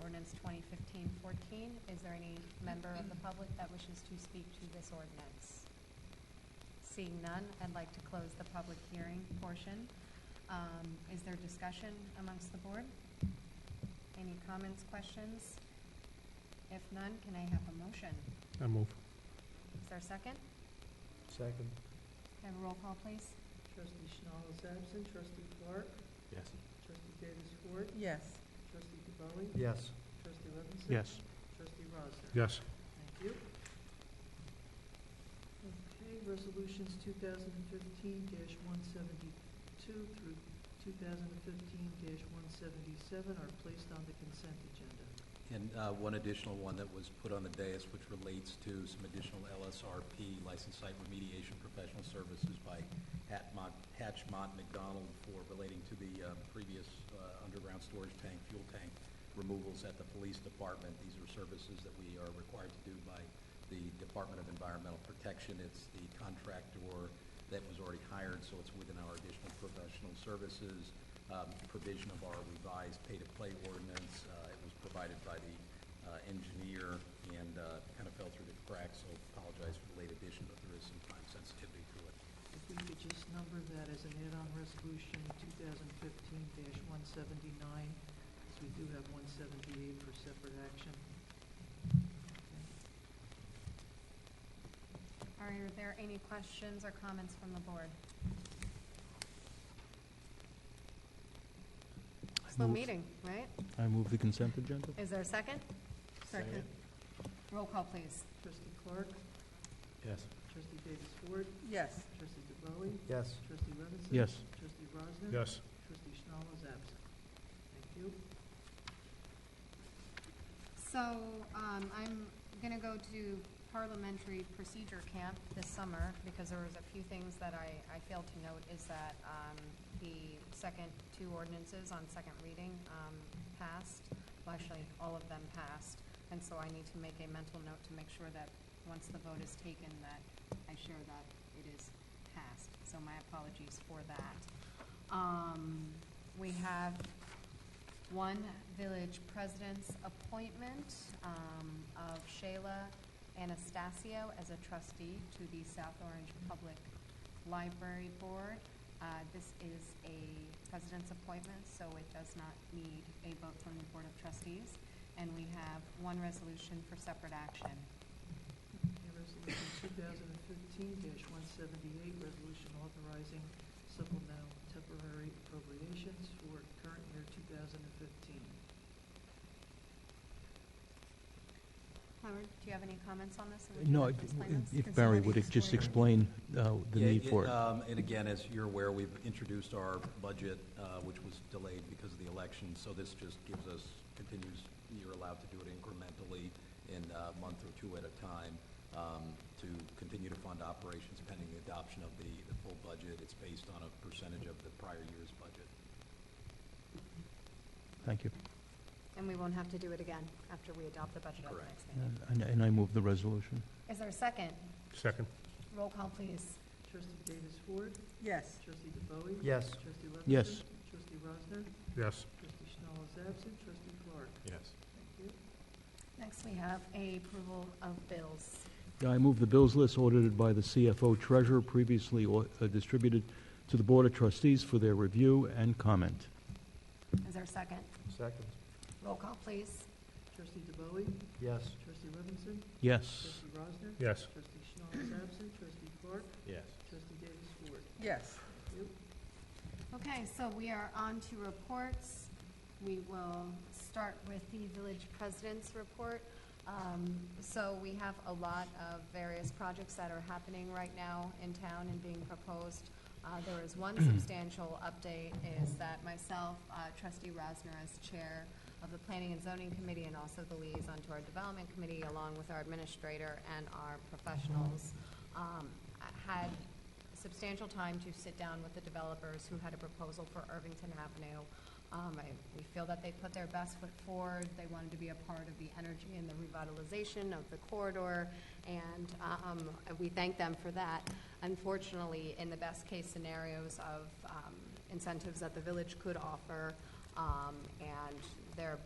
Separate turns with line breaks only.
ordinance 2015-14. Is there any member of the public that wishes to speak to this ordinance? Seeing none, I'd like to close the public hearing portion. Um, Is there discussion amongst the board? Any comments, questions? If none, can I have a motion?
I move.
Is there a second?
Second.
Can I have a roll call, please?
Trustee Schnall is absent. Trustee Clark?
Yes.
Trustee Davis Ward?
yes,
Trustee DeBowie?
Yes.
Trustee Levinson?
Yes.
Trustee Rosner?
Yes.
Thank you. Okay, resolutions two thousand and fifteen one seventy-two through two thousand and fifteen one seventy-seven are placed on the consent agenda.
And uh, one additional one that was put on the dais, which relates to some additional LSRP, licensed site remediation professional services by Hatmont- Hatchmont McDonald for relating to the uh, previous uh, underground storage tank, fuel tank removals at the police department. These are services that we are required to do by the Department of Environmental Protection. It's the contractor that was already hired, so it's within our additional professional services um, provision of our revised pay-to-play ordinance. Uh, It was provided by the uh, engineer and uh, kind of fell through the cracks, so apologize for the late addition, but there is some time sensitivity to it.
If we could just number that as an add-on resolution, two thousand and fifteen one seventy-nine, because we do have one seventy-eight for separate action.
Are there any questions or comments from the board? Slow
move-
meeting, right?
I move the consent agenda?
Is there a second?
Second.
Roll call, please.
Trustee Clark?
Yes.
Trustee Davis Ward?
yes.
Trustee DeBowie?
Yes.
Trustee Levinson?
Yes.
Trustee Rosner?
Yes.
Trustee Schnall is absent. Thank you.
So, um, I'm gonna go to parliamentary procedure camp this summer, because there was a few things that I, I failed to note, is that, um, the second two ordinances on second reading, um, passed. Well, actually, all of them passed, and so I need to make a mental note to make sure that, once the vote is taken, that I share that it is passed. So my apologies for that. Um, we have one village president's appointment um, of Shayla Anastasio as a trustee to the South Orange Public Library Board. Uh, This is a president's appointment, so it does not need a vote from the Board of Trustees. And we have one resolution for separate action.
And resolution two thousand and fifteen one seventy-eight, resolution authorizing supplemental temporary appropriations for current year two thousand and fifteen.
Howard, do you have any comments on this? Would you
No,
like
if-
to explain this?
if
Since you
Barry
already
would ex- just
explained it.
explain uh, the
Yeah,
need for it.
um, And again, as you're aware, we've introduced our budget, uh, which was delayed because of the election, so this just gives us, continues, you're allowed to do it incrementally in uh, a month or two at a time um, to continue to fund operations pending the adoption of the, the full budget. It's based on a percentage of the prior year's budget.
Thank you.
And we won't have to do it again after we adopt the budget at the
Correct.
next meeting.
And- And and I move the resolution.
Is there a second?
Second.
Roll call, please.
Trustee Davis Ward?
Yes.
Trustee DeBowie?
Yes.
Trustee Levinson?
Yes.
Trustee Rosner?
Yes.
Trustee Schnall is absent. Trustee Clark?
Yes.
Thank you.
Next, we have a approval of bills.
Yeah, I move the bills list audited by the CFO Treasurer previously au- uh, distributed to the Board of Trustees for their review and comment.
Is there a second?
Second.
Roll call, please.
Trustee DeBowie?
Yes.
Trustee Levinson?
Yes.
Trustee Rosner?
Yes.
Trustee Schnall is absent. Trustee Clark?
Yes.
Trustee Davis Ward?
Yes.
Thank you.
Okay, so we are on to reports. We will start with the village president's report. Um, So we have a lot of various projects that are happening right now in town and being proposed. Uh, There is one substantial update is that myself, uh, trustee Rosner as chair of the planning and zoning committee and also the liaison to our development committee, along with our administrator and our professionals, um, had substantial time to sit down with the developers who had a proposal for Irvington Avenue. Um, I, we feel that they put their best foot forward. They wanted to be a part of the energy and the revitalization of the corridor, and, um, we thank them for that. Unfortunately, in the best-case scenarios of, um, incentives that the village could offer, um, and their